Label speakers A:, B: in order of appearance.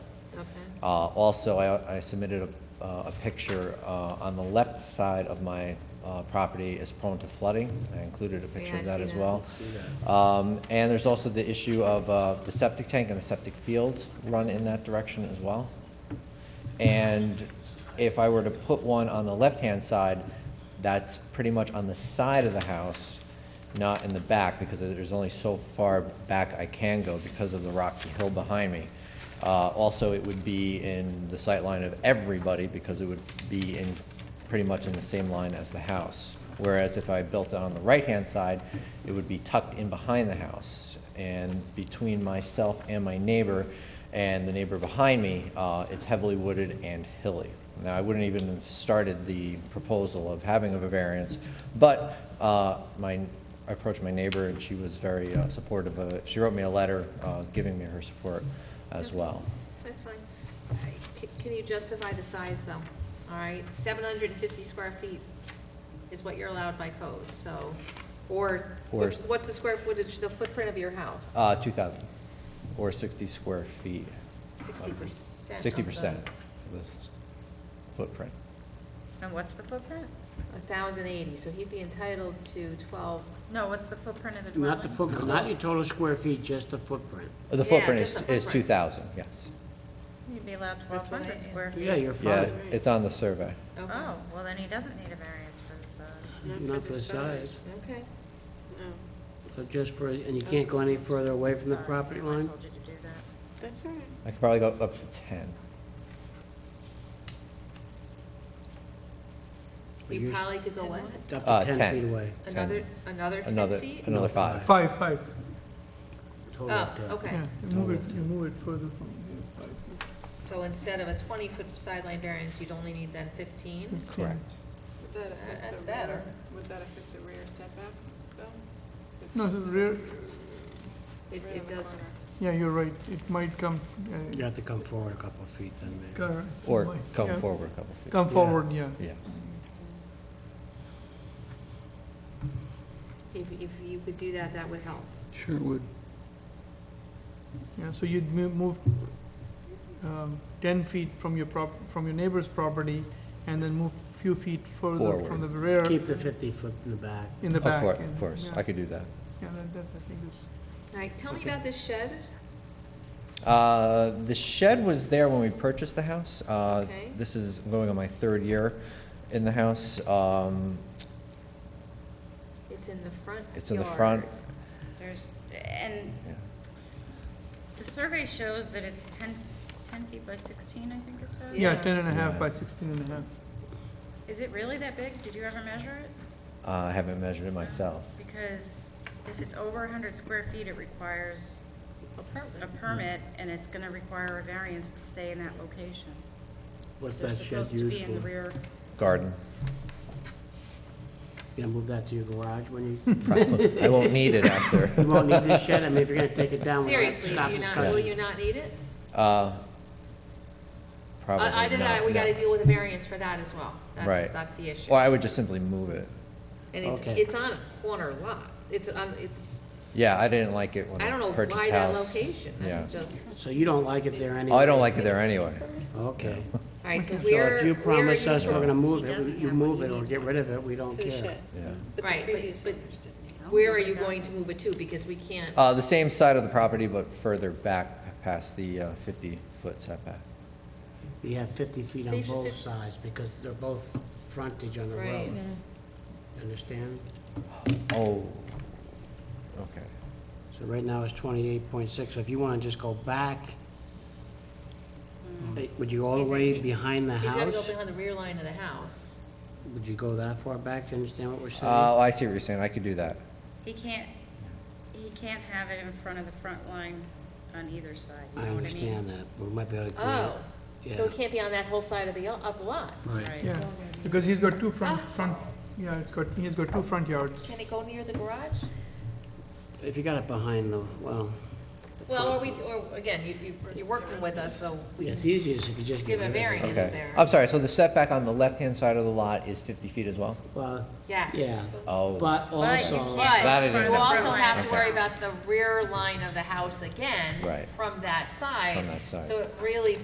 A: Uh, Also, I I submitted a- a picture uh, on the left side of my uh, property is prone to flooding. I included a picture
B: Yeah,
A: of
B: I
A: that
B: see
A: as
B: that.
A: well. Um, And there's also the issue of uh, the septic tank and the septic fields run in that direction as well. And if I were to put one on the left-hand side, that's pretty much on the side of the house, not in the back, because there's only so far back I can go because of the rocky hill behind me. Uh, Also, it would be in the sight line of everybody, because it would be in, pretty much in the same line as the house. Whereas if I built it on the right-hand side, it would be tucked in behind the house. And between myself and my neighbor, and the neighbor behind me, uh, it's heavily wooded and hilly. Now, I wouldn't even have started the proposal of having of a variance, but uh, my, I approached my neighbor, and she was very uh, supportive of it. She wrote me a letter uh, giving me her support as well.
B: That's fine. I- c- Can you justify the size, though? All right, seven hundred and fifty square feet is what you're allowed by code, so, or,
A: Or-
B: which- what's the square footage, the footprint of your house?
A: Uh, 2,000, or 60 square feet.
B: Sixty percent.
A: 60% of this footprint.
C: And what's the footprint?
B: A thousand eighty, so he'd be entitled to twelve,
C: No, what's the footprint of the dwelling?
D: Not the footprint, not your total square feet, just the footprint.
A: The
B: Yeah,
A: footprint
B: just
A: is
B: the
A: is
B: footprint.
A: 2,000, yes.
C: You'd be allowed twelve
B: what I-
C: hundred square feet.
D: Yeah, you're
A: Yeah,
D: fine.
A: it's on the survey.
B: okay.
C: Oh, well, then he doesn't need a variance for the size.
D: Not for the size.
B: Okay,
E: No,
D: So just for, and you can't go any further away from the
C: Sorry,
D: property
C: I
D: line?
C: told you to do that.
E: that's all right.
A: I could probably go up to 10.
B: you
D: Use-
B: probably could go what?
D: Up
A: Uh,
D: to
A: 10.
D: 10 feet away.
B: Another, another ten
A: Another,
B: feet?
A: another five.
F: Five, five,
D: Total
B: Oh,
D: up to-
B: okay.
F: yeah, you move it, you move it further from, yeah, five.
B: So instead of a twenty-foot sideline variance, you'd only need then
A: Hmm.
B: fifteen?
A: Correct.
E: Would that affect the
B: that's
E: rear-
B: better.
E: Would that affect the rear setback, though? It's
F: No,
E: just
F: the
E: a-
F: rear,
B: It,
E: rear
B: it
E: of the
B: does,
E: corner.
F: yeah, you're right, it might come, uh,
D: You have to come forward a couple of feet then, maybe.
F: cor-
A: Or
F: might-
A: come
F: yeah,
A: forward a couple feet.
F: Come
D: Yeah.
F: forward, yeah.
A: Yeah.
B: if, if you could do that, that would help.
F: Sure would. Yeah, so you'd mo- move um, 10 feet from your prop, from your neighbor's property, and then move few feet further
A: Forward.
F: from the rear,
D: Keep the 50 foot in the back.
F: in the
A: Of cour-
F: back.
A: Of
F: and-
A: course,
F: yeah.
A: I could do that.
F: Yeah, that, that, I think is,
B: All right, tell me about this shed.
A: Uh, The shed was there when we purchased the house. Uh,
B: Okay.
A: This is going on my third year in the house. Um,
B: It's in the front
A: It's in the
B: yard.
A: front.
C: There's, and
A: Yeah.
C: the survey shows that it's 10 10 feet by sixteen, I think it says.
F: yeah,
B: Yeah.
F: 10 and a half
A: Yeah.
F: by 16 and a half.
C: Is it really that big? Did you ever measure it?
A: Uh, I haven't measured it myself.
C: Because if it's over hundred square feet, it requires a permit, and it's gonna require a variance to stay in that location.
D: What's
C: They're
D: that shed
C: supposed to
D: used
C: be in the
D: for? You
C: rear.
A: Garden,
D: gonna move that to your garage when you,
A: probably. I won't need it after.
D: you won't need this shed? I mean, if you're gonna take it down, we'll have to
B: Seriously,
D: stop
B: do you
D: this
B: not,
D: car.
B: will you not need it?
A: Uh, Probably not.
B: I, I did that, we
A: no.
B: gotta deal with a variance for that as well. That's,
A: Right.
B: that's the issue.
A: Or I would just simply move it.
B: And it's,
D: Okay.
B: it's on a corner lot. It's on, it's,
A: Yeah, I didn't like it when
B: I
A: I
B: don't know
A: purchased house.
B: why that location. That's
A: Yeah.
B: just,
D: So you don't like it there anyway?
A: Oh, I don't like it there anyway.
D: Okay.
B: all right, so
D: So if
B: where,
D: you
B: where are
D: promise us we're
B: you,
D: gonna move
C: He
D: it,
C: doesn't
D: you
C: have what
D: move
C: he
D: it or
C: needs.
D: get rid of it, we don't
E: For the
D: care.
E: shed.
A: Yeah.
E: But
B: Right,
E: the
B: but-
E: previous
B: but-
E: owners didn't.
B: where are you going to move it to? Because we can't,
A: Uh, the same side of the property, but further back past the uh, fifty-foot setback.
D: You have 50 feet on
B: They should
D: both
B: sit-
D: sides because they're both frontage on the
B: Right.
D: road. Understand?
A: Oh, okay.
D: So right now it's 28.6. So If you want to just go back, eh, would you go all the
B: He's-
D: way behind the
B: he's gotta go
D: house?
B: behind the rear line of the house.
D: Would you go that far back? Do you understand what we're
A: Uh,
D: saying?
A: I see what you're saying, I could do that.
C: He can't, he can't have it in front of the front line on either side, you
D: I
C: know what I
D: understand
C: mean?
D: that, but we might be able to.
B: Oh,
D: create-
B: so it
D: yeah,
B: can't be on that whole side of the, of the lot.
D: Right.
C: Right.
F: Yeah, because he's got two front, front, yeah, it's got, he's got two front yards.
B: Can it go near the garage?
D: If you got it behind the, well,
B: Well, or we, or again, you, you, you're working with us, so we
D: it's
B: can
D: easiest if you just
B: give
D: get rid
B: a
D: of it.
B: variance
A: Okay.
B: there.
A: I'm sorry, so the setback on the left-hand side of the lot is fifty feet as well?
D: Well,
B: Yes.
D: yeah,
A: Oh.
D: but
C: But you
B: But
D: also,
A: That it is.
B: you also have to
A: Okay.
B: worry about the rear line of the house again.
A: Right.
B: From that side.
A: From that side.
B: So it really